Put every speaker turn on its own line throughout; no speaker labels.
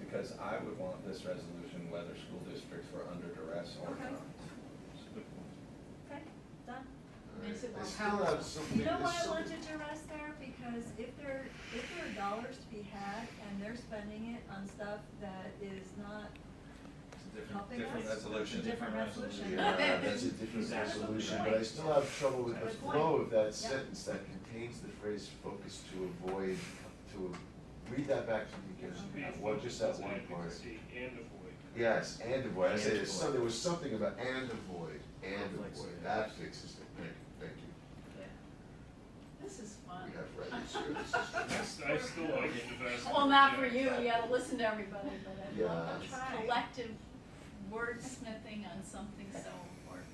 because I would want this resolution whether school districts were under duress or
Okay.
not.
Okay, done.
Makes it
I
more
still have something.
You know why
there's
I
something-
wanted to rest there? Because if there, if there are dollars to be had and they're spending it on stuff that is not
It's a different,
helping us.
different resolution.
It's a different resolution.
Yeah, that's a different
Exactly.
resolution, but I still have trouble with the
Good point.
flow of that
Yeah.
sentence that contains the phrase focus to avoid, to, a- read that back to me
Yeah.
again, what, just that one part.
Advocacy and avoid.
Yes, and avoid, I said,
And
there's some-
avoid.
there was something about and avoid, and
Conflicts,
avoid,
yeah.
that fixes it, thank you, thank you,
This is fun.
we have records here, this is.
I s- I still like it the best.
Well, not for
Yeah.
you, you gotta listen to everybody, but I love
Yes.
the collective wordsmithing on something so important.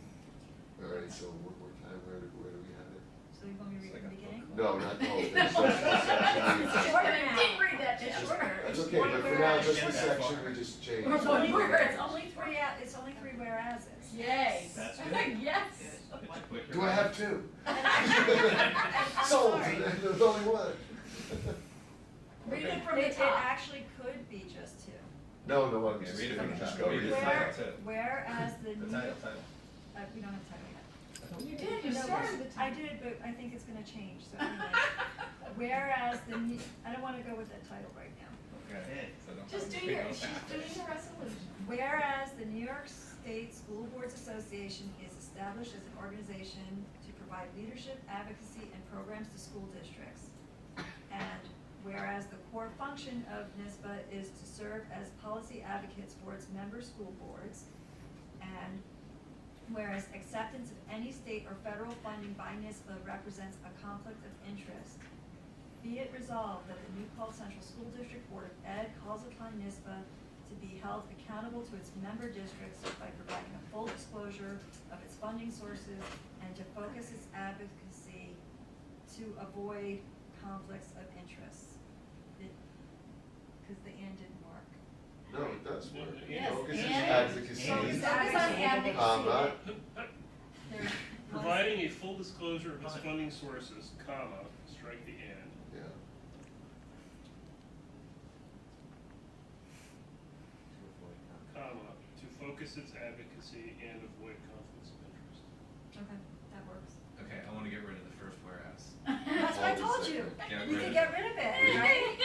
All right, so one more time, where, do- where do we have it?
So you want me to read
It's
from
like
the
a
beginning?
No, not the whole thing,
No.
section, section,
It's
section.
short.
I didn't read that
It's
yet.
just-
That's okay, but for now, just the section we just changed.
Or one
It's
word.
only three, a- it's only three whereases.
Yay.
That's good.
Yes.
It's a quicker-
Do I have two?
I'm
Sold,
sorry.
there's only one.
Read
Okay.
it from
It,
the
it
top.
actually could be just two.
No, no, I'm
Okay,
just,
read it
I'm
from the
just
top.
go
Read
read
it
it.
from the
Where,
top. too.
whereas the
The
new,
title,
uh,
title.
we don't have time yet.
You did, you
No,
started the
I
time.
did, but I think it's gonna change, so anyway. Whereas the, ne- I don't wanna go with that title right now.
Okay. So don't
Just do
speak
your,
on
she's
that.
doing the resolution.
Whereas the New York State School Boards Association is established as an organization to provide leadership, advocacy, and programs to school districts. And whereas the core function of NISBA is to serve as policy advocates for its member school boards. And whereas acceptance of any state or federal funding by NISBA represents a conflict of interest. Be it resolved that the New Paltz Central School District Board of Ed calls upon NISBA to be held accountable to its member districts by providing a full disclosure of its funding sources and to focus its advocacy to avoid conflicts of interest. Because the and didn't work.
No, it does work.
Yes,
Focus is
and-
advocacy.
Focus
is
on advocacy.
Comma,
There was-
Providing a full disclosure of its funding sources, comma, strike the and.
yeah,
comma, to focus its advocacy and avoid conflicts of interest.
Okay, that works.
Okay, I wanna get rid of the first whereas.
That's what I
Hold a
told you.
second.
Get
We
rid
could
of
get
it.
rid of it, right?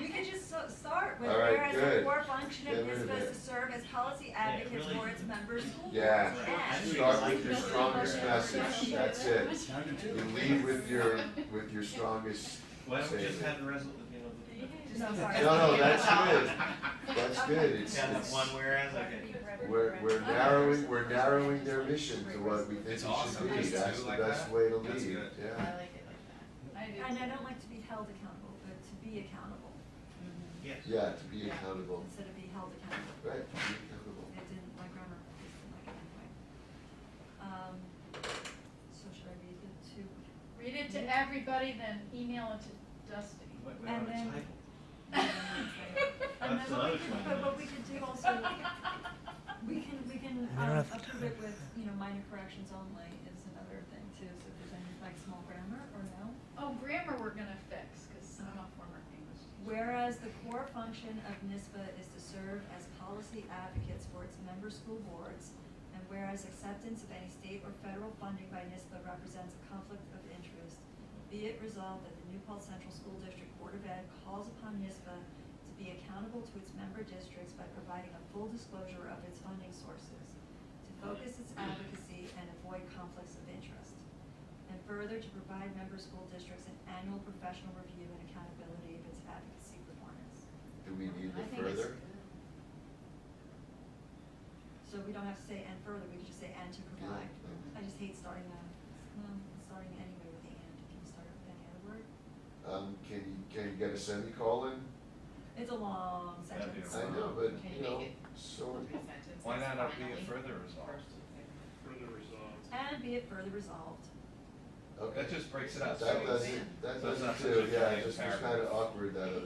We could just so- start with
All right,
whereas the
good.
core function of
Get rid of
NISBA is to
it.
serve as policy
Yeah, it
advocates
really-
for its members.
yeah.
Yes.
Start with your strongest message, that's it.
two.
You lead with your, with your strongest,
Why don't we
Save
just
it.
have the resol, you know,
No, sorry.
no, no, that's good, that's good,
the-
it's,
yeah, that
it's,
one whereas, okay.
we're, we're narrowing, we're narrowing their mission to what we think it
It's awesome.
should be,
Nice to
that's
do
the
like
best
that.
way to lead, yeah.
That's good.
like it like that.
And I don't like to be held accountable, but to be accountable
Yes.
Yeah, to be
Yeah.
accountable,
instead of be held accountable.
right, to be accountable.
It didn't, my grammar just didn't like it anyway. Um, so should I read the two?
Read it to everybody, then email it to Dusty.
Wait, wait,
And
wait,
then-
title.
And
uh, That's
then what we
another
could,
20
but what we
minutes.
could do also, we can, we can um, approve it with, you know, minor corrections only is another thing too. So if there's any like small grammar or no?
Oh, grammar we're gonna fix, cause I'm a former English teacher.
Whereas the core function of NISBA is to serve as policy advocates for its member school boards, and whereas acceptance of any state or federal funding by NISBA represents a conflict of interest, be it resolved that the New Paltz Central School District Board of Ed calls upon NISBA to be accountable to its member districts by providing a full disclosure of its funding sources, to focus its advocacy and avoid conflicts of interest. And further, to provide member school districts an annual professional review and accountability of its advocacy performance.
Do we need
I
it
think it's
further?
good.
So we don't have to say and further, we can just say and to provide.
Yeah, yeah.
I just hate starting that, um, starting anyway with the and, can you start with any other word?
Um, can you, can you get a semicolon?
It's a long
That'd be
sentence.
I know, but, you know, so,
Why not up be it further resolved?
Further resolved.
And be it further resolved.
okay.
That just breaks it up.
That
so it's-
doesn't, that
So it's not such a
doesn't do, yeah,
giant
it just was
paragraph.
kinda awkward, that other